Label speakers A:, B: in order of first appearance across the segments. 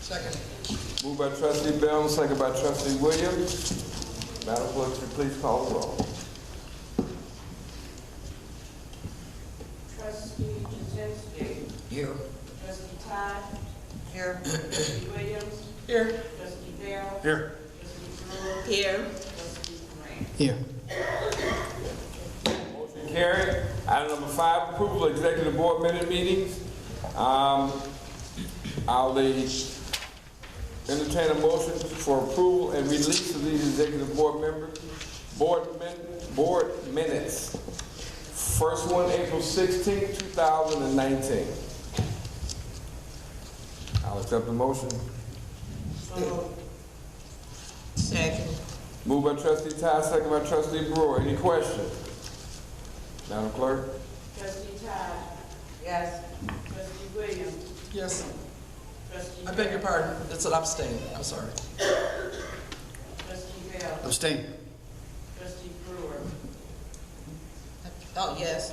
A: Second.
B: Moved by trustee Bell, second by trustee Williams. Madam Clerk, if you please call the roll.
C: Trustee Jazinski.
A: Here.
C: Trustee Todd.
A: Here.
C: Trustee Williams.
A: Here.
C: Trustee Bell.
A: Here.
C: Trustee Brewer. Here. Trustee Grant.
A: Here.
B: Motion carried. Item number five, approval of executive board minute meetings. Um, I'll uh, entertain a motion for approval and release of these executive board members, board min, board minutes. First one, April sixteenth, two thousand and nineteen. I'll accept the motion.
A: Second.
B: Moved by trustee Todd, second by trustee Brewer. Any questions? Madam Clerk?
C: Trustee Todd.
A: Yes.
C: Trustee Williams.
D: Yes,
C: Trustee.
D: I beg your pardon, it's an abstain, I'm sorry.
C: Trustee Bell.
D: Abstain.
C: Trustee Brewer.
A: Oh, yes.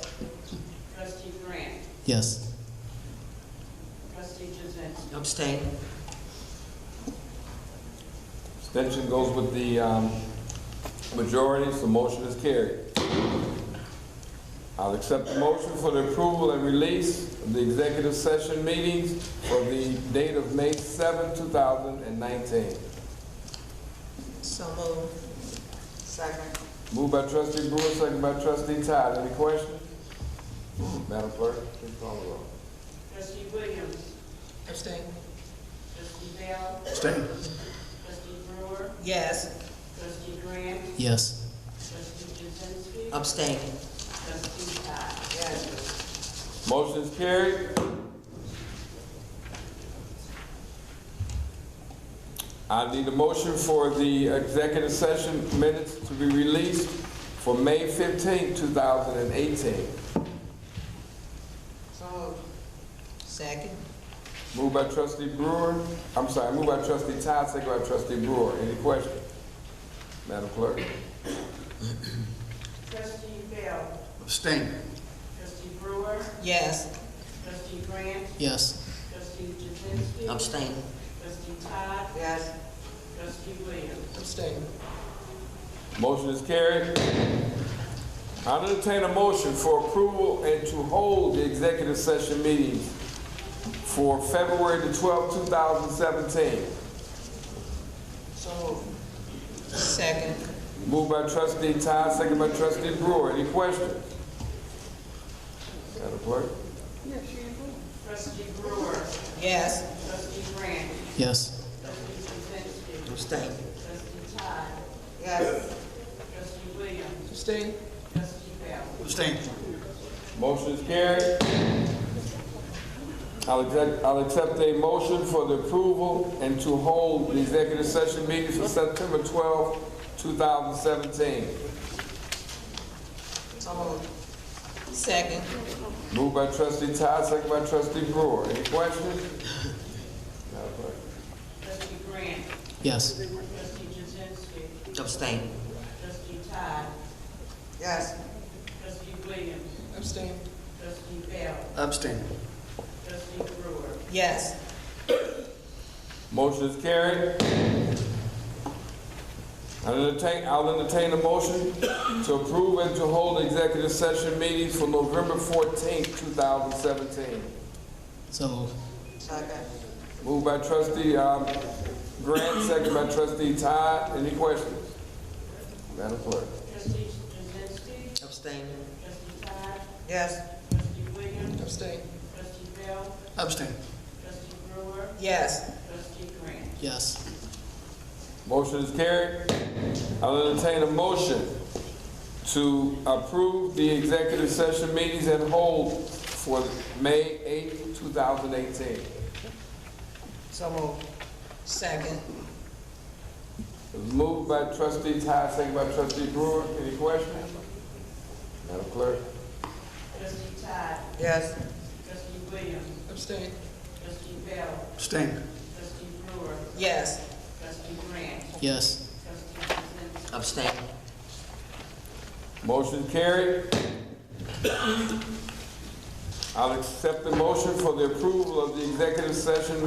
C: Trustee Grant.
D: Yes.
C: Trustee Jazinski.
A: Abstain.
B: Abstention goes with the um, majority, so motion is carried. I'll accept the motion for the approval and release of the executive session meetings for the date of May 7, 2019.
A: So moved. Second.
B: Moved by trustee Brewer, second by trustee Todd. Any questions? Madam Clerk, please call the roll.
C: Trustee Williams.
D: Abstain.
C: Trustee Bell.
D: Abstain.
C: Trustee Brewer.
A: Yes.
C: Trustee Grant.
D: Yes.
C: Trustee Jazinski.
A: Abstain.
C: Trustee Todd.
B: Motion is carried. I need a motion for the executive session minutes to be released for May 15, 2018.
A: So moved. Second.
B: Moved by trustee Brewer, I'm sorry, moved by trustee Todd, second by trustee Brewer. Any questions? Madam Clerk?
C: Trustee Bell.
D: Abstain.
C: Trustee Brewer.
A: Yes.
C: Trustee Grant.
D: Yes.
C: Trustee Jazinski.
A: Abstain.
C: Trustee Todd.
A: Yes.
C: Trustee Williams.
D: Abstain.
B: Motion is carried. I will entertain a motion for approval and to hold the executive session meeting for February the 12th, 2017.
A: So moved. Second.
B: Moved by trustee Todd, second by trustee Brewer. Any questions? Madam Clerk?
C: Trustee Brewer.
A: Yes.
C: Trustee Grant.
D: Yes.
C: Trustee Jazinski.
A: Abstain.
C: Trustee Todd.
A: Yes.
C: Trustee Williams.
D: Abstain.
C: Trustee Bell.
D: Abstain.
B: Motion is carried. I'll accept, I'll accept a motion for the approval and to hold the executive session meeting for September 12th, 2017.
A: So moved. Second.
B: Moved by trustee Todd, second by trustee Brewer. Any questions? Madam Clerk.
C: Trustee Grant.
D: Yes.
C: Trustee Jazinski.
A: Abstain.
C: Trustee Todd.
A: Yes.
C: Trustee Williams.
D: Abstain.
C: Trustee Bell.
D: Abstain.
C: Trustee Brewer.
A: Yes.
B: Motion is carried. I'll entertain, I'll entertain a motion to approve and to hold executive session meetings for November fourteenth, two thousand seventeen.
D: So moved.
A: Second.
B: Moved by trustee, um, Grant, second by trustee Todd. Any questions? Madam Clerk.
C: Trustee Jazinski.
A: Abstain.
C: Trustee Todd.
A: Yes.
C: Trustee Williams.
D: Abstain.
C: Trustee Bell.
D: Abstain.
C: Trustee Brewer.
A: Yes.
C: Trustee Grant.
D: Yes.
B: Motion is carried. I'll entertain a motion to approve the executive session meetings and hold for May eighth, two thousand eighteen.
A: So moved. Second.
B: Moved by trustee Todd, second by trustee Brewer. Any questions? Madam Clerk?
C: Trustee Todd.
A: Yes.
C: Trustee Williams.
D: Abstain.
C: Trustee Bell.
D: Abstain.
C: Trustee Brewer.
A: Yes.
C: Trustee Grant.
D: Yes.
C: Trustee Jazinski.
A: Abstain.
B: Motion carried. I'll accept the motion for the approval of the executive session